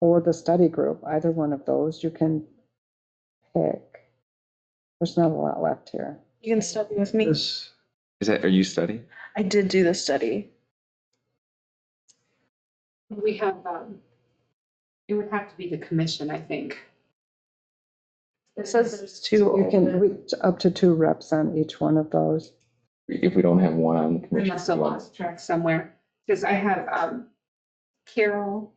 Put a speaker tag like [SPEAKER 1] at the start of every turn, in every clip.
[SPEAKER 1] or the study group, either one of those, you can pick. There's not a lot left here.
[SPEAKER 2] You can study with me.
[SPEAKER 3] This,
[SPEAKER 4] Is that, are you studying?
[SPEAKER 2] I did do the study.
[SPEAKER 5] We have, um, it would have to be the commission, I think.
[SPEAKER 2] It says there's two.
[SPEAKER 1] You can
[SPEAKER 2] open.
[SPEAKER 1] reach up to two reps on each one of those.
[SPEAKER 4] If we don't have one on the
[SPEAKER 5] We
[SPEAKER 4] commission.
[SPEAKER 5] must have
[SPEAKER 4] who else?
[SPEAKER 5] lost track somewhere, because I have, um, Carol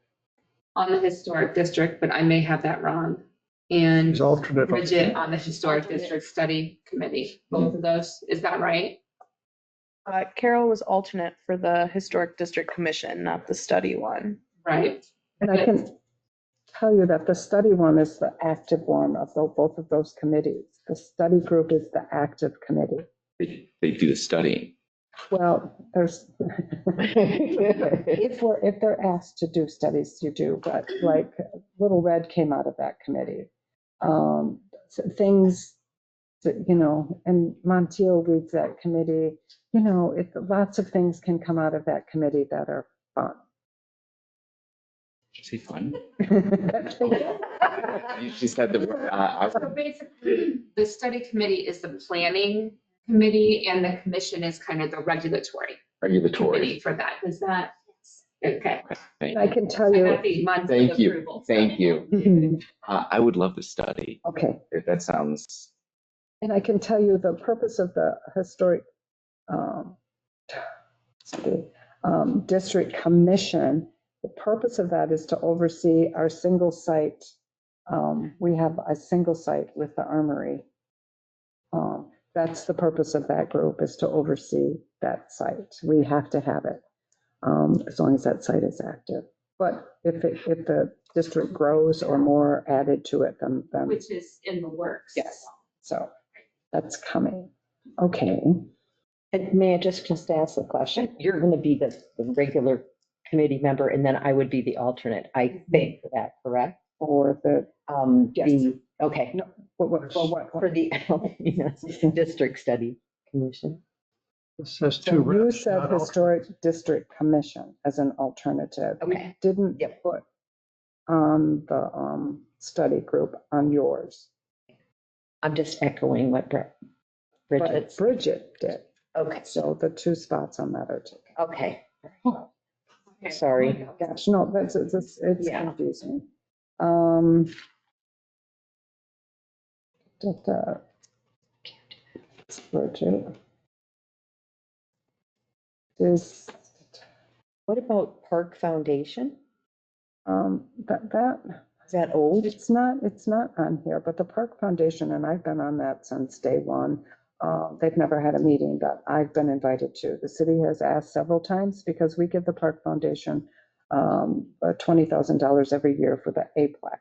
[SPEAKER 5] on the historic district, but I may have that wrong. And
[SPEAKER 3] is alternate.
[SPEAKER 5] Bridget on the historic district study committee,
[SPEAKER 4] Mm-hmm.
[SPEAKER 5] both of those, is that right?
[SPEAKER 2] Uh, Carol was alternate for the Historic District Commission, not the study one.
[SPEAKER 5] Right?
[SPEAKER 1] And I can tell you that the study one is the active one of tho- both of those committees. The study group is the active committee.
[SPEAKER 4] They, they do the studying.
[SPEAKER 1] Well, there's, if we're, if they're asked to do studies, you do, but like Little Red came out of that committee. Um, so Things that, you know, and Montiel leads that committee, you know, it, lots of things can come out of that committee that are fun.
[SPEAKER 4] Is it fun?
[SPEAKER 1] They
[SPEAKER 4] You just said the word, uh,
[SPEAKER 5] So
[SPEAKER 4] I-
[SPEAKER 5] basically, the study committee is the planning committee and the commission is kind of the regulatory committee
[SPEAKER 4] regulatory.
[SPEAKER 5] for that. Is that? Okay.
[SPEAKER 4] Thank
[SPEAKER 1] I
[SPEAKER 4] you.
[SPEAKER 1] can tell
[SPEAKER 5] I
[SPEAKER 1] you,
[SPEAKER 5] got the months of
[SPEAKER 4] Thank you.
[SPEAKER 5] approval.
[SPEAKER 4] Thank you.
[SPEAKER 1] Mhm,
[SPEAKER 4] Uh, I would love to study.
[SPEAKER 1] okay.
[SPEAKER 4] If that sounds,
[SPEAKER 1] And I can tell you the purpose of the historic um, excuse, um, district commission, the purpose of that is to oversee our single site. um, We have a single site with the armory. Um, That's the purpose of that group, is to oversee that site. We have to have it, um, as long as that site is active. But if, it- if the district grows or more added to it, then. then-
[SPEAKER 5] Which is in the works.
[SPEAKER 1] Yes. so that's coming. Okay.
[SPEAKER 6] And may I just, just ask a question? You're going to be the, the regular committee member and then I would be the alternate, I think, for that, correct?
[SPEAKER 1] Or the,
[SPEAKER 6] Um,
[SPEAKER 1] Yes.
[SPEAKER 6] the- Okay,
[SPEAKER 1] what, what, for what?
[SPEAKER 6] for the district study commission.
[SPEAKER 3] This has
[SPEAKER 1] So
[SPEAKER 3] two
[SPEAKER 1] You
[SPEAKER 3] reps.
[SPEAKER 1] said
[SPEAKER 3] not alternate.
[SPEAKER 1] Historic District Commission as an alternative. We
[SPEAKER 6] Okay.
[SPEAKER 1] Didn't
[SPEAKER 6] Yep.
[SPEAKER 1] put on the um, study group on yours,
[SPEAKER 6] I'm just echoing what Bri-
[SPEAKER 1] but
[SPEAKER 6] Bridget's.
[SPEAKER 1] Bridget did.
[SPEAKER 6] Okay,
[SPEAKER 1] So the two spots on that are taken.
[SPEAKER 6] okay.
[SPEAKER 5] Okay.
[SPEAKER 6] Sorry.
[SPEAKER 1] Gosh, no, that's, it's, it's it's
[SPEAKER 6] Yeah.
[SPEAKER 1] confusing. Um. da, da. Bridget. This,
[SPEAKER 6] What about Park Foundation?
[SPEAKER 1] um, that, that,
[SPEAKER 6] Is that old?
[SPEAKER 1] it's not, it's not on here, but the Park Foundation, and I've been on that since day one. Uh, they've never had a meeting that I've been invited to. The city has asked several times because we give the Park Foundation um, uh, $20,000 every year for the A-plaque.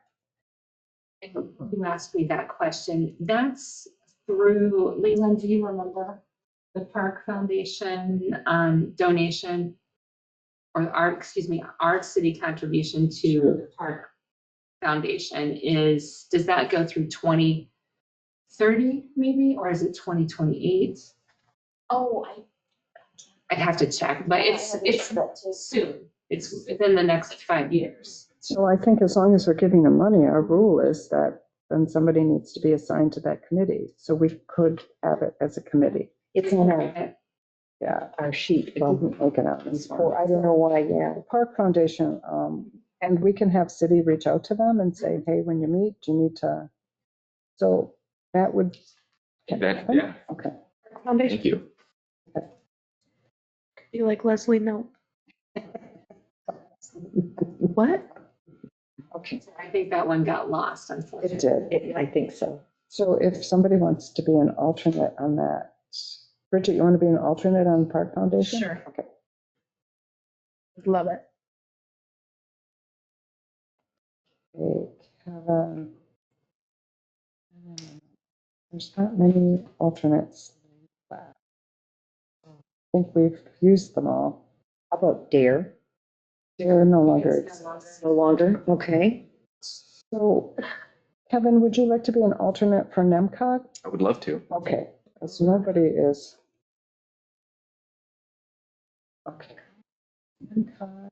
[SPEAKER 5] And You asked me that question. That's through, Leland, do you remember the Park Foundation um, donation? Or our, excuse me, our city contribution to the Park Foundation is, does that go through 2030 maybe? Or is it 2028?
[SPEAKER 7] Oh, I.
[SPEAKER 5] I'd have to check, but it's, it's
[SPEAKER 7] it's.
[SPEAKER 5] soon. It's within the next five years.
[SPEAKER 1] So I think as long as we're giving them money, our rule is that then somebody needs to be assigned to that committee. So we could have it as a committee.
[SPEAKER 6] It's on our,
[SPEAKER 1] Yeah,
[SPEAKER 6] our sheet.
[SPEAKER 1] it
[SPEAKER 6] from-
[SPEAKER 1] didn't make it out. this
[SPEAKER 6] Or
[SPEAKER 1] morning.
[SPEAKER 6] I don't know why, yeah.
[SPEAKER 1] the Park Foundation, um, and we can have city reach out to them and say, hey, when you meet, you need to, so that would.
[SPEAKER 4] that, yeah,
[SPEAKER 1] Okay,
[SPEAKER 2] Foundation,
[SPEAKER 4] thank you.
[SPEAKER 2] you like Leslie Nope? What?
[SPEAKER 1] okay,
[SPEAKER 5] I think that one got lost unfortunately.
[SPEAKER 1] it did.
[SPEAKER 6] It- I think so.
[SPEAKER 1] So if somebody wants to be an alternate on that, Bridget, you want to be an alternate on Park Foundation?
[SPEAKER 2] Sure.
[SPEAKER 1] Okay.
[SPEAKER 2] Love it.
[SPEAKER 1] Okay, Kevin. Um, There's not many alternates. left. I think we've used them all.
[SPEAKER 6] How about DARE?
[SPEAKER 1] They're no longer.
[SPEAKER 5] It's no longer-
[SPEAKER 6] No longer? Okay.
[SPEAKER 1] So Kevin, would you like to be an alternate for NEMCOG?
[SPEAKER 4] I would love to.
[SPEAKER 1] Okay, because nobody is. Okay. NEMCOG.